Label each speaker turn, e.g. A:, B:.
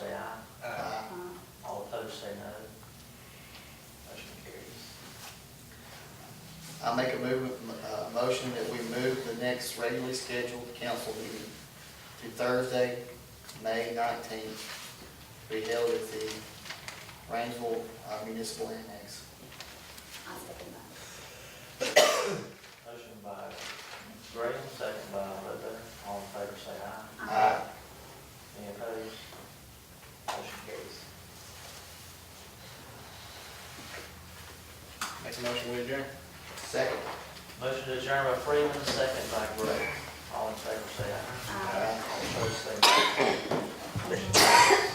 A: Uh, I make a move, uh, motion that we move the next regularly scheduled council meeting to Thursday, May nineteenth, be held at the Rangeville uh, Municipal Annex.
B: I'll second that.
C: Motion by Graham, second by Ledbetter, all in favor say aye.
A: Aye.
C: Any opposed? Motion carries.
A: Make a motion, we adjourn. Second.
C: Motion to adjourn by Freeman, second by Gray,
A: 哎
C: all in favor say aye.
B: Aye.
C: Opposed say no.